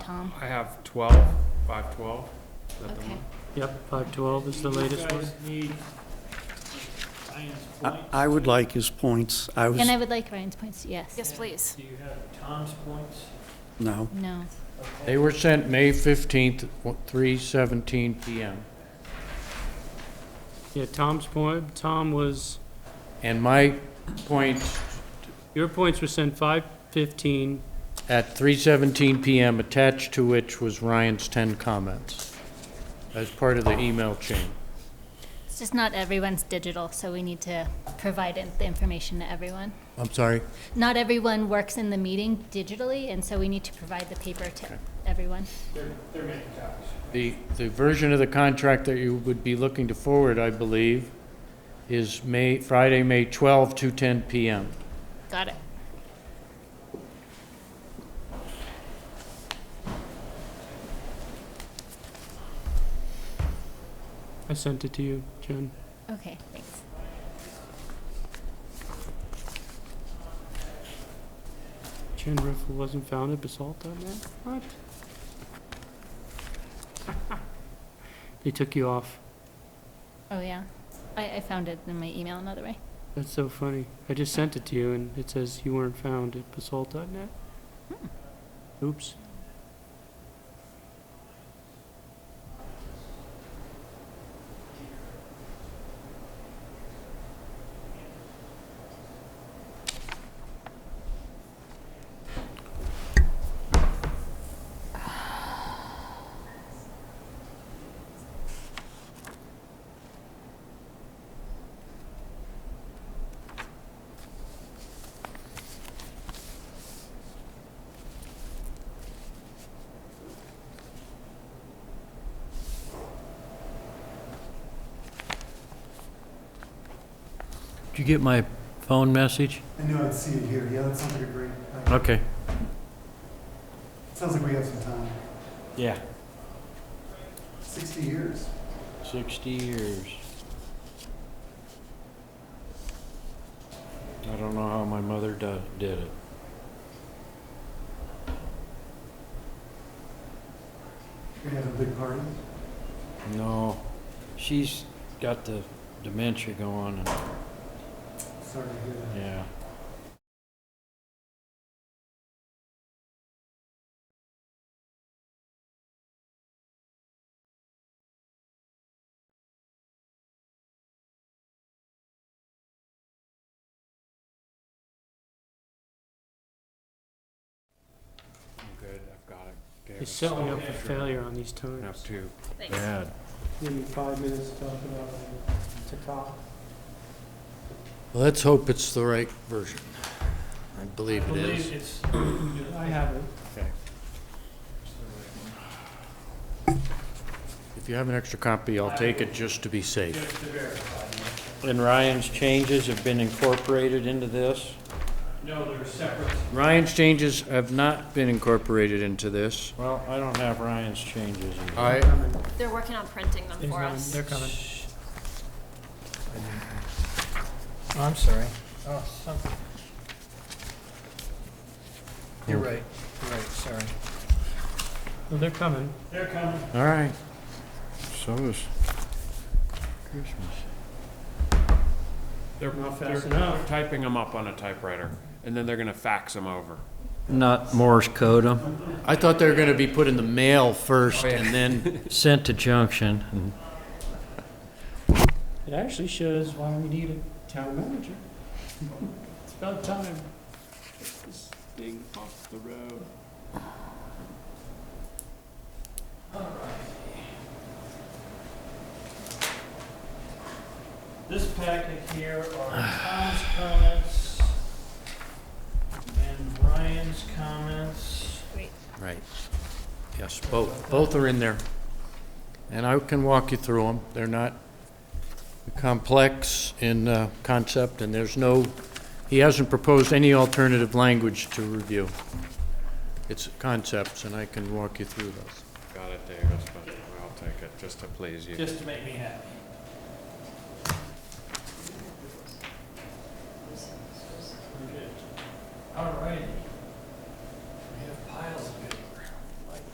Tom? I have 12, 512. Is that the Okay. one? Yep, five twelve is the latest one. I I would like his points. I was, And I would like Ryan's points, yes. Yes, please. Do you have Tom's points? no. No. They were sent May 15th, 3:17 PM. Yeah, Tom's point, Tom was, And my points your points were sent five fifteen, at 3:17 PM, attached to which was Ryan's 10 comments as part of the email chain. It's just not everyone's digital, so we need to provide it- the information to everyone. I'm sorry? Not everyone works in the meeting digitally, and so we need to provide the paper to everyone. The, the version of the contract that you would be looking to forward, I believe, is May, Friday, May 12, 2:10 PM. Got it. I sent it to you, Jen. Okay, thanks. Jen Riffle wasn't found at Basalt that night? What? They took you off. Oh, yeah. I, I found it in my email another way. That's so funny. I just sent it to you and it says you weren't found at basalt.net. Oops. Did you get my phone message? I knew I'd see it here. Yeah, that sounds like a great, uh, Okay. sounds like we have some time. Yeah. 60 years. 60 years. I don't know how my mother do- did it. We have a big party. No, she's got the dementia going, and, Sorry to hear that. yeah. I'm good, I've got it. Gave They're it setting some up for failure on these times. Enough to Thanks. bad. Give me five minutes to talk about it, to talk. Let's hope it's the right version. I believe it is. it's, I have it. If you have an extra copy, I'll take it just to be safe. And Ryan's changes have been incorporated into this? No, they're separate. Ryan's changes have not been incorporated into this. Well, I don't have Ryan's changes. I, They're working on printing them for us. They're coming. I'm sorry. Oh, something. You're right, you're right, sorry. No, They're coming. all right. So is Christmas. They're, Not they're fast enough. typing them up on a typewriter, and then they're going to fax them over. Not Morse code 'em. I thought they were gonna be put in the mail first and then, Sent to Junction and It actually shows why we need a town manager. It's about time. Get this thing off the road. This packet here are Tom's comments and Brian's comments. right. Yes, both, both are in there. And I can walk you through them. They're not complex in, uh, concept and there's no, he hasn't proposed any alternative language to review. It's concepts and I can walk you through those. Got it, Davis, but I'll take it just to please you. to make me happy. All righty.